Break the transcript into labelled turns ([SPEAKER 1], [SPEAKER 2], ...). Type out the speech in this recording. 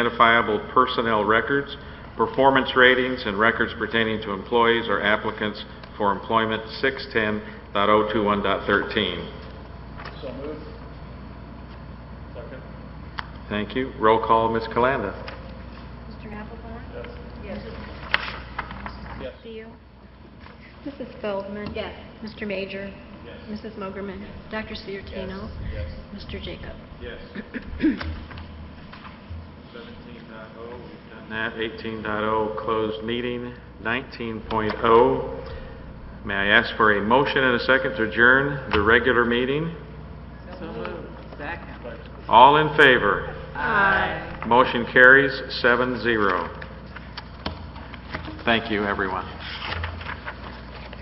[SPEAKER 1] identifiable personnel records, performance ratings, and records pertaining to employees or applicants for employment 610.021.13.
[SPEAKER 2] So moved. Second.
[SPEAKER 1] Thank you. Roll call, Ms. Calanda.
[SPEAKER 3] Mr. Applebaum?
[SPEAKER 2] Yes. Yes.
[SPEAKER 3] Mrs. Seal? Mrs. Feldman? Yes. Mr. Major?
[SPEAKER 2] Yes.
[SPEAKER 3] Mrs. Mogerman? Dr. Sutardino?
[SPEAKER 2] Yes.
[SPEAKER 3] Mr. Jacob?
[SPEAKER 2] Yes. Seventeen dot O, we've done
[SPEAKER 1] That 18.0, oh, closed meeting. 19.0, may I ask for a motion and a second to adjourn the regular meeting?
[SPEAKER 4] So moved. Second.
[SPEAKER 1] All in favor?
[SPEAKER 4] Aye.
[SPEAKER 1] Motion carries seven zero. Thank you, everyone.